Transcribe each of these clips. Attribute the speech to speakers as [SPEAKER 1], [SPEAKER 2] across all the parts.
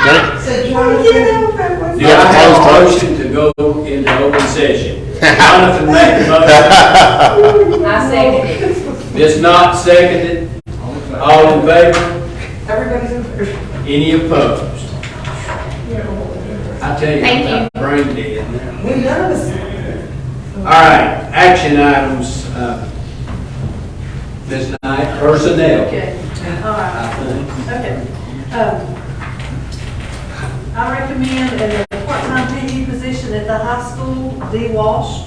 [SPEAKER 1] So Jonathan,
[SPEAKER 2] Oh, get over with.
[SPEAKER 3] Do I have a motion to go into open session? Jonathan made the motion,
[SPEAKER 1] I second it.
[SPEAKER 3] Ms. Knott seconded. All in favor?
[SPEAKER 2] Everybody's in favor.
[SPEAKER 3] Any opposed? I tell you,
[SPEAKER 1] Thank
[SPEAKER 3] I'm brain dead now.
[SPEAKER 2] We none of us.
[SPEAKER 3] All right, action items, uh, Ms. Knight, personnel.
[SPEAKER 4] Okay, all right,
[SPEAKER 3] I think.
[SPEAKER 4] okay. Um, I recommend a part-time PE position at the high school, Dee Walsh.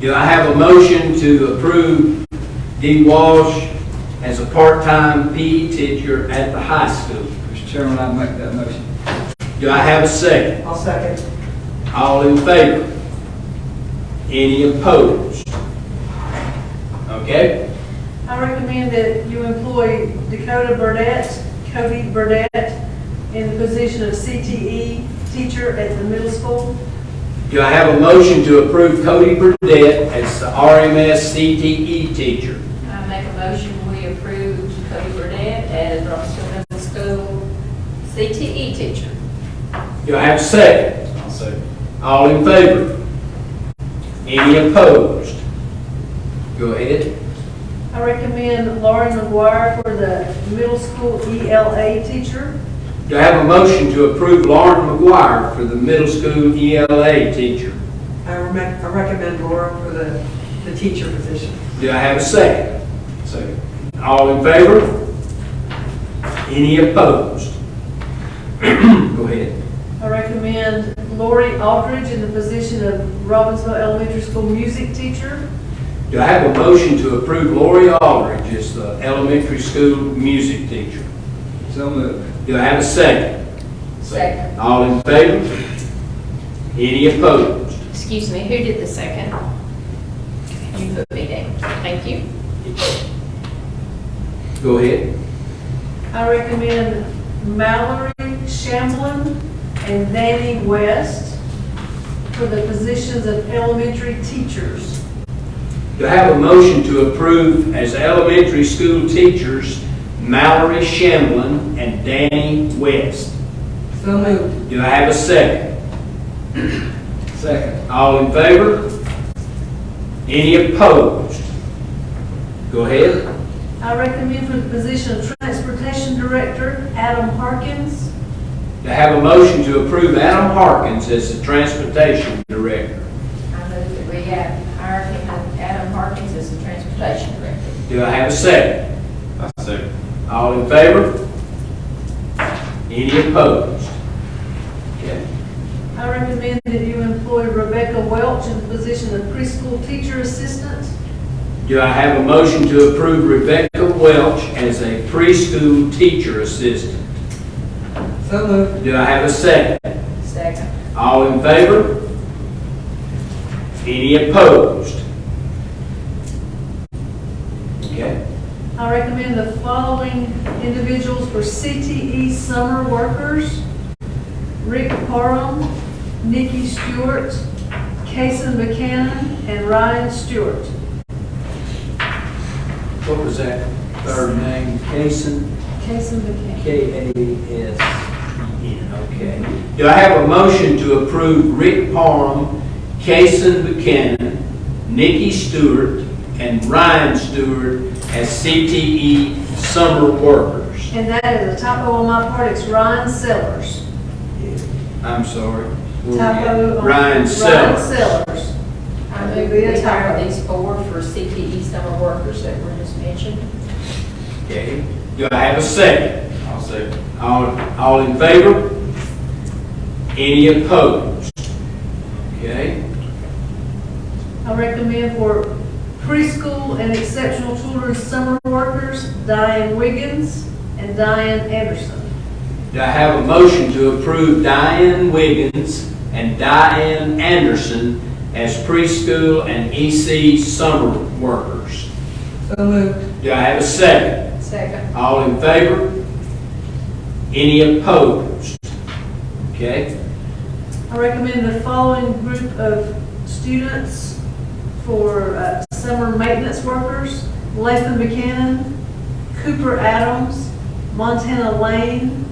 [SPEAKER 3] Do I have a motion to approve Dee Walsh as a part-time PE teacher at the high school?
[SPEAKER 5] Mr. Chairman, I make that motion.
[SPEAKER 3] Do I have a second?
[SPEAKER 2] I'll second.
[SPEAKER 3] All in favor? Any opposed? Okay,
[SPEAKER 4] I recommend that you employ Dakota Burdette, Cody Burdette, in the position of CTE teacher at the middle school.
[SPEAKER 3] do I have a motion to approve Cody Burdette as the RMS CTE E teacher?
[SPEAKER 1] I make a motion, we approve Cody Burnett as Robinson Middle School CTE teacher.
[SPEAKER 3] Do I have a second?
[SPEAKER 5] I'll second.
[SPEAKER 3] All in favor? Any opposed? Go ahead.
[SPEAKER 4] I recommend Lauren McGuire for the middle school ELA teacher.
[SPEAKER 3] Do I have a motion to approve Lauren McGuire for the middle school ELA teacher?
[SPEAKER 2] I recommend, I recommend Laura for the, the teacher position.
[SPEAKER 3] Do I have a second? Second. All in favor? Any opposed? Go ahead.
[SPEAKER 4] I recommend Lori Aldridge in the position of Robbinsville Elementary School music teacher.
[SPEAKER 3] Do I have a motion to approve Lori Aldridge as the elementary school music teacher?
[SPEAKER 5] So moved.
[SPEAKER 3] Do I have a second?
[SPEAKER 1] Second.
[SPEAKER 3] All in favor? Any opposed?
[SPEAKER 1] Excuse me, who did the second? You put me down. Thank you.
[SPEAKER 3] Go ahead.
[SPEAKER 4] I recommend Mallory Shamblin and Danny West for the positions of elementary teachers.
[SPEAKER 3] Do I have a motion to approve as elementary school teachers Mallory Shamblin and Danny West?
[SPEAKER 2] So moved.
[SPEAKER 3] Do I have a second?
[SPEAKER 5] Second.
[SPEAKER 3] All in favor? Any opposed? Go ahead.
[SPEAKER 4] I recommend for the position of transportation director, Adam Harkins.
[SPEAKER 3] Do I have a motion to approve Adam Harkins as the transportation director?
[SPEAKER 1] I move that we add- hire him and Adam Harkins as the transportation director.
[SPEAKER 3] Do I have a second? A second. All in favor? Any opposed? Okay.
[SPEAKER 4] I recommend that you employ Rebecca Welch in the position of preschool teacher assistant.
[SPEAKER 3] Do I have a motion to approve Rebecca Welch as a preschool teacher assistant?
[SPEAKER 2] So moved.
[SPEAKER 3] Do I have a second?
[SPEAKER 1] Second.
[SPEAKER 3] All in favor? Any opposed? Okay.
[SPEAKER 4] I recommend the following individuals for CTE summer workers. Rick Parham, Nikki Stewart, Kason McCann, and Ryan Stewart.
[SPEAKER 3] What was that third name? Kason,
[SPEAKER 4] Kason McCann.
[SPEAKER 3] K-A-S-E-N, okay. Do I have a motion to approve Rick Parham, Kason Buchanan, Nikki Stewart, and Ryan Stewart as CTE summer workers?
[SPEAKER 4] And that is a typo on my part, it's Ryan Sellers.
[SPEAKER 3] I'm sorry. Where we at?
[SPEAKER 4] Typo on.
[SPEAKER 3] Ryan
[SPEAKER 4] Ryan
[SPEAKER 3] Sellers.
[SPEAKER 4] Sellers.
[SPEAKER 1] I move we hire these four for CTE summer workers that were just mentioned.
[SPEAKER 3] Okay. Do I have a second?
[SPEAKER 5] I'll second.
[SPEAKER 3] All, all in favor? Any opposed? Okay.
[SPEAKER 4] I recommend for preschool and exceptional children's summer workers, Diane Wiggins and Diane Anderson.
[SPEAKER 3] Do I have a motion to approve Diane Wiggins and Diane Anderson as preschool and EC summer workers?
[SPEAKER 2] So moved.
[SPEAKER 3] Do I have a second?
[SPEAKER 1] Second.
[SPEAKER 3] All in favor? Any opposed? Okay,
[SPEAKER 4] I recommend the following group of students for uh, summer maintenance workers. Latham McCannon, Cooper Adams, Montana Lane,